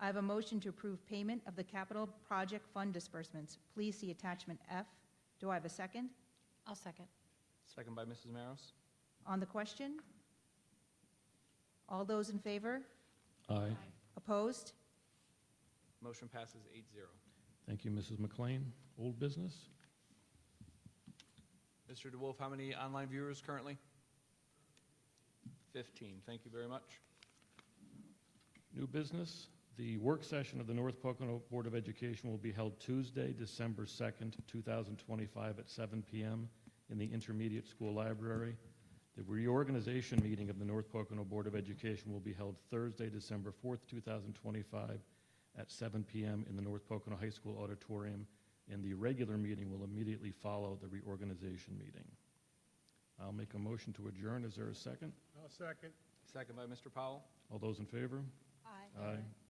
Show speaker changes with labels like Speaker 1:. Speaker 1: I have a motion to approve payment of the capital project fund disbursements. Please see attachment F. Do I have a second?
Speaker 2: I'll second.
Speaker 3: Second by Mrs. Maros.
Speaker 1: On the question? All those in favor?
Speaker 4: Aye.
Speaker 1: Opposed?
Speaker 3: Motion passes eight zero.
Speaker 4: Thank you, Mrs. McLean. Old business?
Speaker 3: Mr. DeWolf, how many online viewers currently? Fifteen. Thank you very much.
Speaker 4: New business? The work session of the North Pocono Board of Education will be held Tuesday, December 2nd, 2025, at 7 p.m. in the Intermediate School Library. The reorganization meeting of the North Pocono Board of Education will be held Thursday, December 4th, 2025, at 7 p.m. in the North Pocono High School Auditorium, and the regular meeting will immediately follow the reorganization meeting. I'll make a motion to adjourn. Is there a second?
Speaker 5: I'll second.
Speaker 3: Second by Mr. Powell.
Speaker 4: All those in favor?
Speaker 2: Aye.
Speaker 4: Aye.